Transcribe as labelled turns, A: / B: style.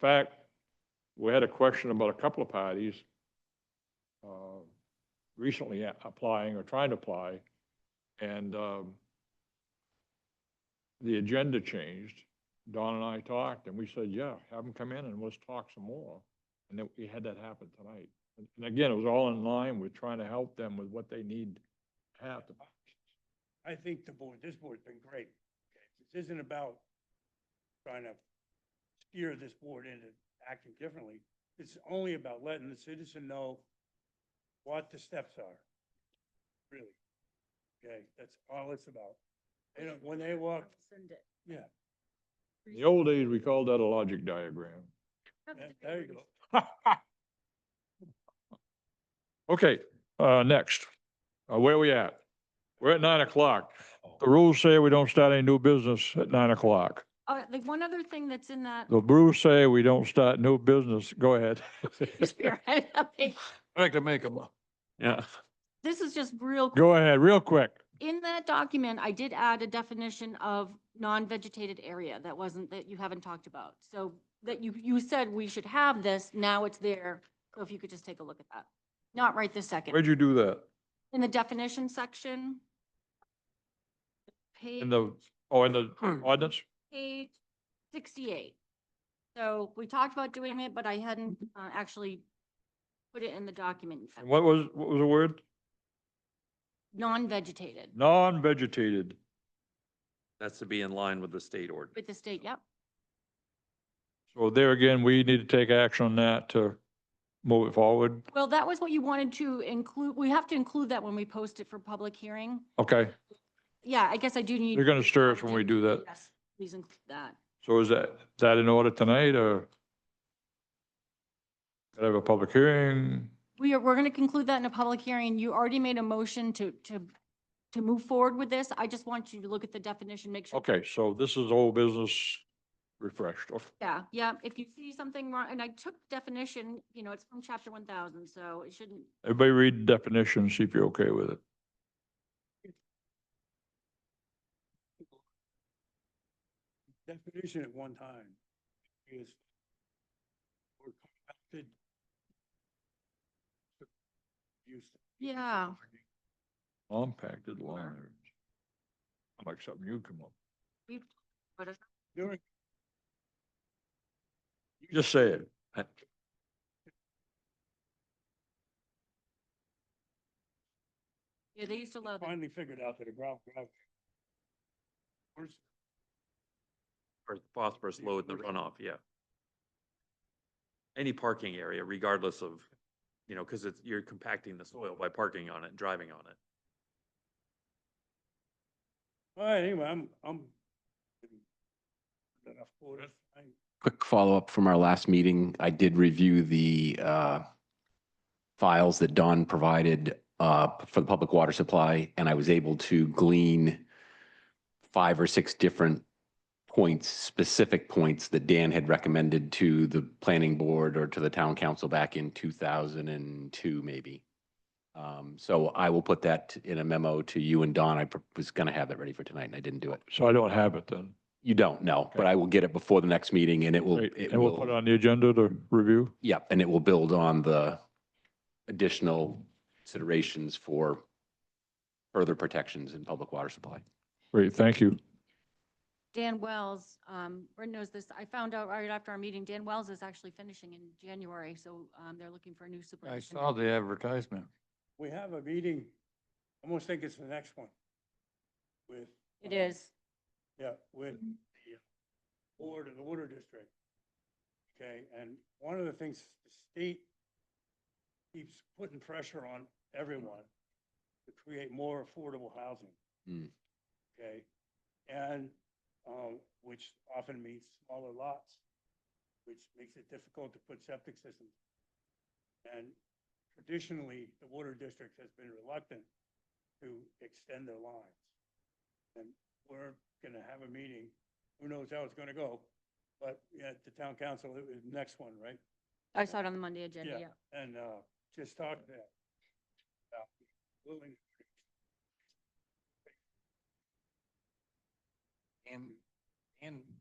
A: fact, we had a question about a couple of parties uh, recently a- applying or trying to apply, and um, the agenda changed. Don and I talked, and we said, yeah, have them come in and let's talk some more. And then we had that happen tonight. And- And again, it was all in line with trying to help them with what they need to have to
B: I think the board, this board's been great. Okay, This isn't about trying to steer this board into acting differently. It's only about letting the citizen know what the steps are, really. Okay, that's all it's about. They don't, when they walk,
C: Send it.
B: yeah,
A: In the old days, we called that a logic diagram.
B: yeah, there you go.
A: Okay, uh, next, uh, where we at? We're at nine o'clock. The rules say we don't start any new business at nine o'clock.
C: Uh, like one other thing that's in that.
A: The rules say we don't start new business. Go ahead.
C: Spirit, okay,
A: I like to make them. Yeah.
C: This is just real,
A: Go ahead, real quick.
C: in that document, I did add a definition of non-vegetated area that wasn't, that you haven't talked about. So that you, you said we should have this, now it's there. So if you could just take a look at that. Not right this second.
A: Where'd you do that?
C: In the definition section. Page.
A: In the, oh, in the ordinance?
C: page sixty-eight. So we talked about doing it, but I hadn't uh, actually put it in the document. yet.
A: And what was, what was the word?
C: Non-vegetated
A: Non-vegetated.
D: That's to be in line with the state ordinance.
C: with the state, yep.
A: So there again, we need to take action on that to move it forward.
C: Well, that was what you wanted to include. We have to include that when we post it for public hearing.
A: Okay,
C: Yeah, I guess I do need.
A: you're gonna stir us when we do that.
C: Yes, please include that.
A: So is that, that in order tonight or? Could I have a public hearing?
C: We are, we're going to conclude that in a public hearing. You already made a motion to, to, to move forward with this. I just want you to look at the definition, make sure.
A: Okay, so this is old business refreshed.
C: Yeah, yeah, if you see something wrong, and I took definition, you know, it's from chapter one thousand, so it shouldn't,
A: Everybody read the definition, see if you're okay with it.
B: Definition at one time is or compacted use.
C: yeah.
A: Compacted lines. I'm like something you come up.
B: During
A: Just say it.
C: Yeah, they used to love that.
B: finally figured out that a ground gravel. Where's,
D: Or phosphorus load in the runoff, yeah. Any parking area regardless of, you know, because it's, you're compacting the soil by parking on it, driving on it.
B: all right, anyway, I'm, I'm. Enough for it. I-
E: Quick follow-up from our last meeting. I did review the uh, files that Don provided uh, for the public water supply, and I was able to glean five or six different points, specific points that Dan had recommended to the planning board or to the town council back in 2002, maybe. Um, So I will put that in a memo to you and Don. I pr- was going to have that ready for tonight, and I didn't do it.
A: So I don't have it then.
E: You don't know, but
A: Okay.
E: I will get it before the next meeting, and it will.
A: Great.
E: it
A: And we'll
E: will-
A: put it on the agenda to review.
E: Yep, and it will build on the additional considerations for further protections in public water supply.
A: Great, thank you.
C: Dan Wells, um, Brent knows this, I found out right after our meeting, Dan Wells is actually finishing in January, so, um, they're looking for a new
F: I
C: superintendent.
F: saw the advertisement.
B: We have a meeting, I almost think it's the next one. With.
C: It
B: uh,
C: is,
B: Yeah, with the board of the water district. Okay, and one of the things the state keeps putting pressure on everyone to create more affordable housing.
E: Mm.
B: Okay, and, um, which often means smaller lots, which makes it difficult to put septic systems. And traditionally, the water district has been reluctant to extend their lines. And we're gonna have a meeting, who knows how it's gonna go, but at the town council, it was next one, right?
C: I saw it on the Monday agenda,
B: Yeah.
C: yeah.
B: And, uh, just talk to that. about willing-
F: And, and